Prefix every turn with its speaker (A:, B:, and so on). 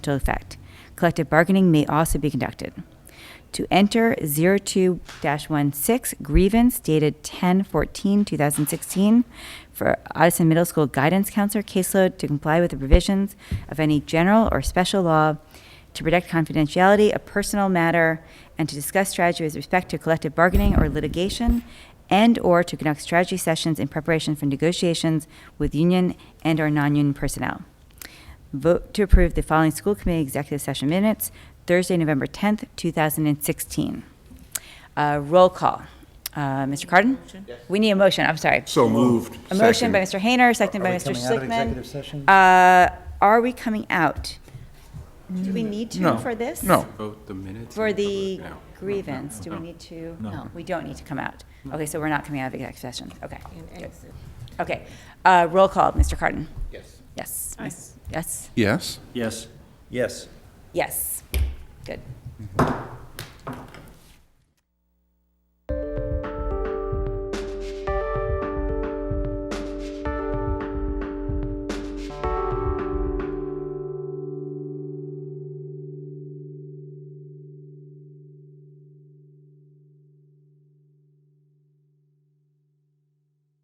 A: to effect. Collective bargaining may also be conducted. To enter 02-16 grievance dated 10/14/2016 for Odison Middle School guidance counselor caseload to comply with the provisions of any general or special law to protect confidentiality of personal matter and to discuss strategy with respect to collective bargaining or litigation and/or to conduct strategy sessions in preparation for negotiations with union and/or non-union personnel. Vote to approve the following school committee executive session minutes, Thursday, November 10th, 2016. Uh, Roll call. Uh, Mr. Cardin? We need a motion, I'm sorry.
B: So moved.
A: A motion by
B: Second.
A: Mr. Hayner, seconded by
C: Are we
A: Mr.
C: coming out of
A: Schlickman.
C: executive session?
A: Uh, Are we coming out? Do we need to
B: No.
A: for this?
B: No.
D: Vote the minutes?
A: For
D: and cover it
A: the
D: now.
A: grievance, do we need to? No. We don't need to come out. Okay, so we're not coming out of executive session, okay. good. Okay, Uh, roll call, Mr. Cardin?
C: Yes.
A: Yes. Miss- Yes?
B: Yes?
E: Yes.
C: Yes.
A: Yes. Good.